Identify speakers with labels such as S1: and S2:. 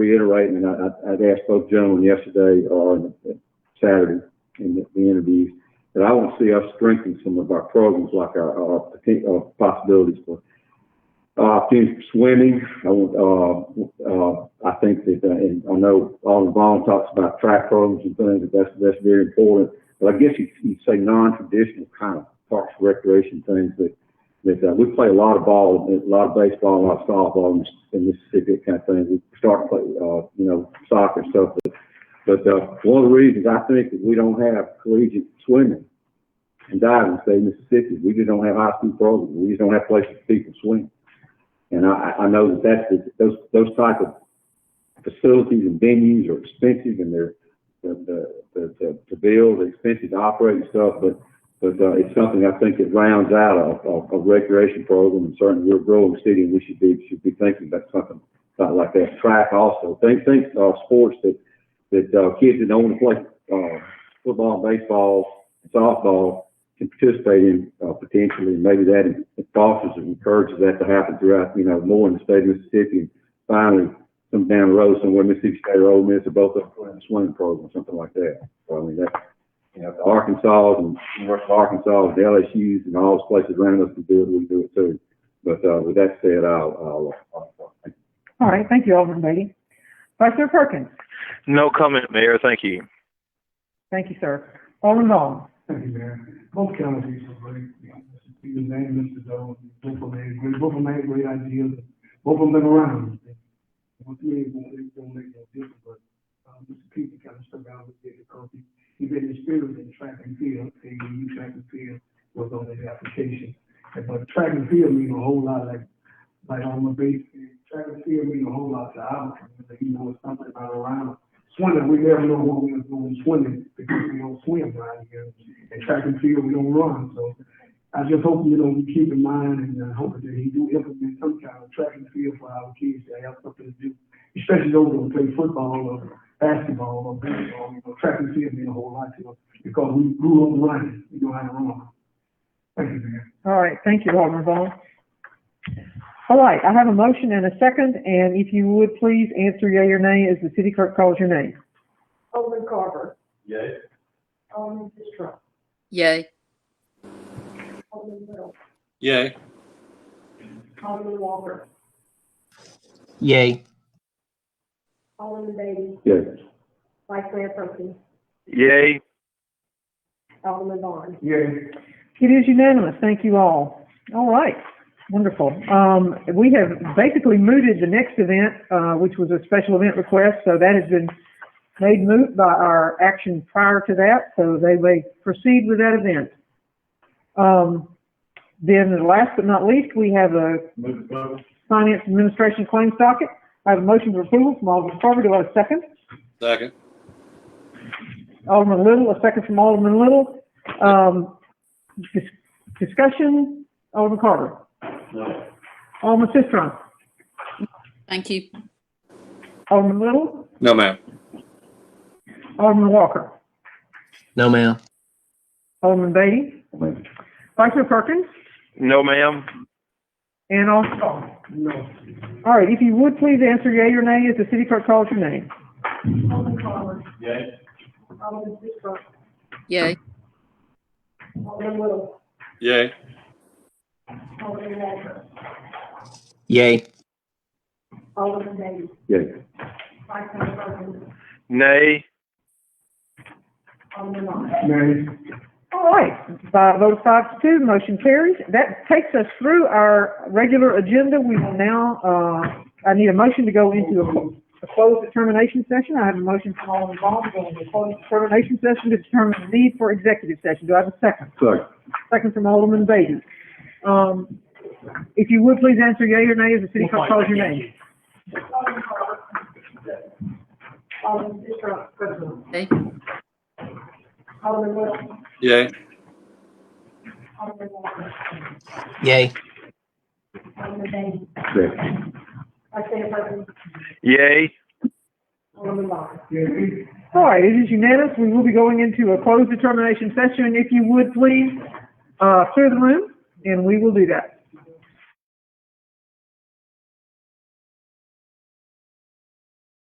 S1: reiterating, and I, I- I'd asked both gentlemen yesterday or Saturday in the- the interviews, that I want to see us strengthen some of our programs, like our, our, poten- our possibilities for, uh, opportunities for swimming. I want, uh, uh, I think that, uh, and I know Alden Vaughn talks about track programs and things, that that's, that's very important. But I guess you, you'd say non-traditional kind of parks recreation things that that uh, we play a lot of ball, a lot of baseball, a lot of softball in, in Mississippi, that kind of thing. We start to play, uh, you know, soccer and stuff. But, but uh, one of the reasons I think that we don't have collegiate swimming and diving, say in Mississippi, we just don't have high school programs. We just don't have places for people to swim. And I, I I know that that's the, those those type of facilities and venues are expensive and they're the, the, the, to build, they're expensive to operate and stuff. But but uh, it's something I think that rounds out a, a, a recreation program, and certainly we're a growing city, and we should be should be thinking about something about like that. Track also, think think uh, sports that that uh, kids that don't want to play uh, football, baseball, softball can participate in uh, potentially, and maybe that fosters and encourages that to happen throughout you know more in the state of Mississippi, and finally some down the road somewhere Mississippi State or Ole Miss are both up for a swimming program, something like that. So I mean that you know, the Arkansas and University of Arkansas, the LSU's and all those places around us can do it, we do it too. But, uh, with that said, I'll, I'll, I'll
S2: All right, thank you, Alderman Beatty. Vice Mayor Perkins,
S3: No comment, Mayor. Thank you.
S2: thank you, sir. Alderman Vaughn,
S4: Thank you, Mayor. Both counties are great, you know, you can name Mr. Doe, both of them had great, both of them had great ideas, both of them been around. One thing, it won't, it won't make no difference, but, um, Mr. Peter kind of stuck out with it because he, he been in spirit in track and field, and he knew track and field was on his application. And But track and field mean a whole lot, like, like on the base, track and field mean a whole lot to our community, you know, it's something about around. Swimming, we never know what we're doing swimming, because we don't swim around here and track and field, we don't run, so I just hope, you know, we keep in mind and I hope that he do implement some kind of track and field for our kids to have something to do. Especially those that play football or basketball or baseball, you know, track and field mean a whole lot to us because we grew up running, we know how to run. Thank you, Mayor.
S2: all right, thank you, Alderman Vaughn. All right, I have a motion and a second, and if you would please answer yea or nay as the city clerk calls your name.
S5: Alderman Carver. Yay. Alderman Fisher.
S6: Yay.
S5: Alderman Little.
S7: Yay.
S5: Alderman Walker.
S8: Yay.
S5: Alderman Beatty.
S1: yes.
S5: Vice Mayor Perkins.
S3: Yay.
S5: Alderman Vaughn.
S4: Yeah.
S2: It is unanimous, thank you all. All right, wonderful. Um, we have basically mooted the next event, uh, which was a special event request, so that has been made moot by our action prior to that, so they may proceed with that event. Um, then last but not least, we have a Finance Administration Claims Docket. I have a motion for approval from Alderman Carver, do I have a second?
S7: Second.
S2: Alderman Little, a second from Alderman Little. Um, dis- discussion, Alderman Carter. No. Alderman Sisdrum.
S6: Thank you.
S2: Alderman Little,
S7: No, ma'am.
S2: Alderman Walker,
S8: No, ma'am.
S2: Alderman Beatty,
S1: I mean,
S2: Vice Mayor Perkins,
S3: No, ma'am.
S2: and Alderman Vaughn. No. All right, if you would please answer yea or nay as the city clerk calls your name.
S5: Alderman Carver. Yay. Alderman Fisher.
S6: Yay.
S5: Alderman Little.
S7: Yay.
S5: Alderman Walker.
S8: Yay.
S5: Alderman Beatty.
S1: Yes,
S5: Vice Mayor Perkins.
S3: Nay.
S5: Alderman Vaughn.
S4: Mayor,
S2: All right, by a vote of five to two, motion carries. That takes us through our regular agenda. We will now, uh, I need a motion to go into a, a closed determination session. I have a motion from Alderman Vaughn to go into a closed determination session to determine the need for executive session. Do I have a second?
S1: so,
S2: Second from Alderman Beatty. Um, if you would please answer yea or nay as the city clerk calls your name.
S5: Alderman Carver. Alderman Fisher.
S6: Yay.
S5: Alderman Little.
S7: Yay.
S5: Alderman Walker.
S8: Yay.
S5: Alderman Beatty.
S1: yes.
S5: Vice Mayor Perkins.
S3: Yay.
S5: Alderman Vaughn.
S4: yeah,
S2: All right, it is unanimous. We will be going into a closed determination session. If you would please, uh, clear the room, and we will do that.